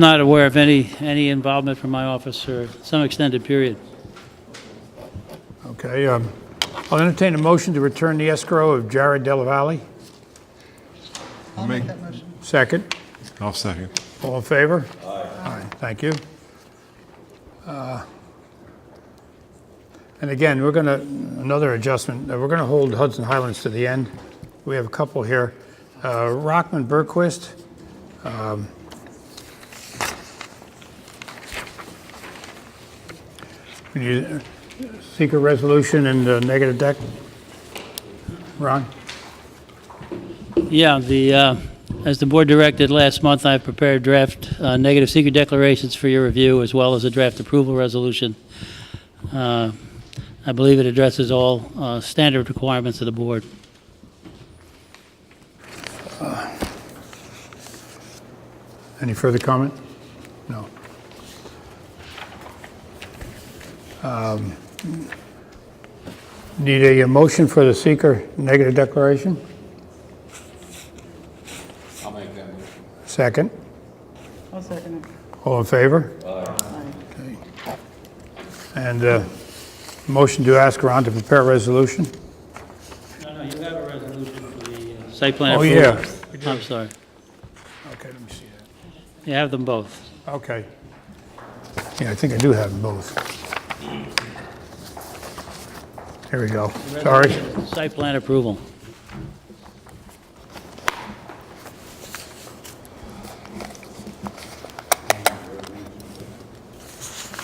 Not aware of any, any involvement from my office for some extended period. Okay, um, I'll entertain a motion to return the escrow of Jared Della Valle. I'll make Second. I'll second. All in favor? Aye. Thank you. Uh, And again, we're going to, another adjustment, uh, we're going to hold Hudson Highlands to the end. We have a couple here. Uh, Rockman Burquist. um, Would you uh, seek a resolution in the negative deck? Ron? Yeah, the, uh, as the board directed last month, I prepared draft uh, negative secret declarations for your review, as well as a draft approval resolution. Uh, I believe it addresses all uh, standard requirements of the board. Any further comment? No. Um, Need a motion for the seeker negative declaration? I'll make that motion. Second. I'll second it. All in favor? Aye. And uh, motion to ask Ron to prepare a resolution? No, no, you have a resolution for the... uh, Site plan Oh, approval. yeah. I'm sorry. Okay, let me see that. You have them both. Okay. Yeah, I think I do have them both. Here we go. Sorry. Site plan approval.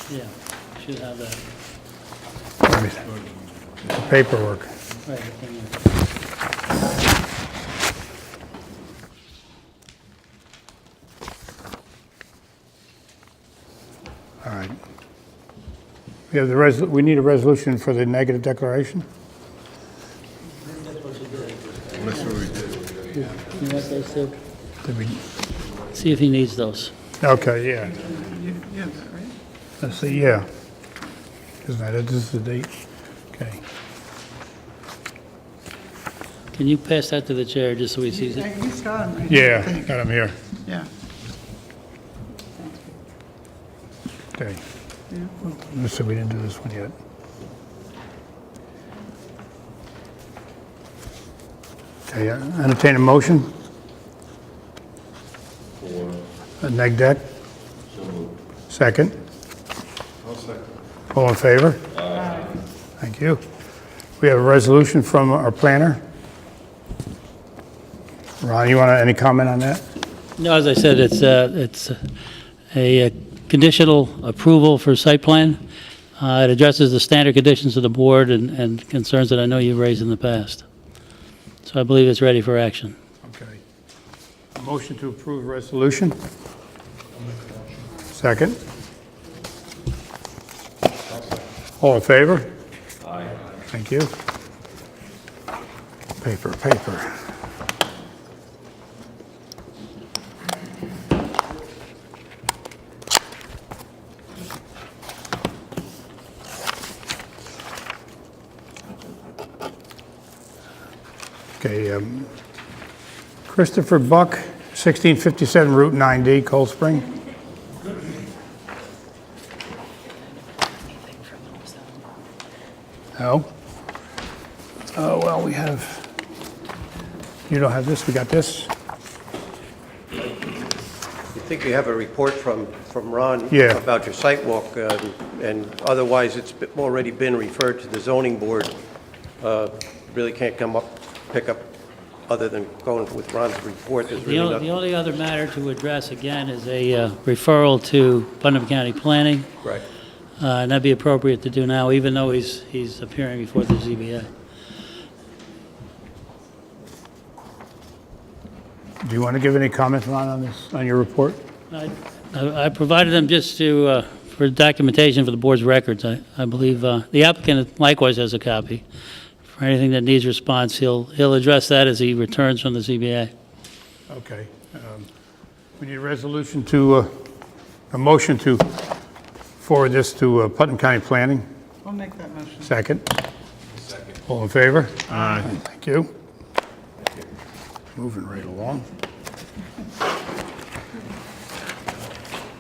Yeah, should have that Paperwork. right in there. All right. We have the res, we need a resolution for the negative declaration? That's what we did. You want those too? Did we- See if he needs those. Okay, yeah. That's the, yeah. Isn't that, it? this is the date? Okay. Can you pass that to the chair, just so he sees it? He's got him, right? Yeah, got him here. Yeah. Okay. Yeah. So we didn't do this one yet. Okay, uh, entertain a motion? For? A neg deck? Second? I'll second. All in favor? Aye. Thank you. We have a resolution from our planner. Ron, you want to, any comment on that? No, as I said, it's, uh, it's a conditional approval for site plan. Uh, It addresses the standard conditions of the board and- and concerns that I know you've raised in the past. So I believe it's ready for action. Okay. A motion to approve resolution? Second? All in favor? Aye. Thank you. Paper, paper. Okay, um, Christopher Buck, 1657 Route 9D, Cold Spring. No? Oh, well, we have, you don't have this, we got this? I think you have a report from, from Ron. Yeah. About your site walk, um, and otherwise, it's be- already been referred to the zoning board. Uh, Really can't come up, pick up, other than going with Ron's report, there's The really only, the nothing. only other matter to address, again, is a uh, referral to Putnam County Planning, Right. uh, and that'd be appropriate to do now, even though he's, he's appearing before the ZBA. Do you want to give any comment, Ron, on this, on your report? I- I I provided them just to, uh, for documentation for the board's records. I I believe uh, the applicant likewise has a copy. For anything that needs response, he'll, he'll address that as he returns from the ZBA. Okay. um, We need a resolution to, uh, a motion to forward this to uh, Putnam County Planning. I'll make that motion. Second? All in favor? Aye. Thank you. Moving right along.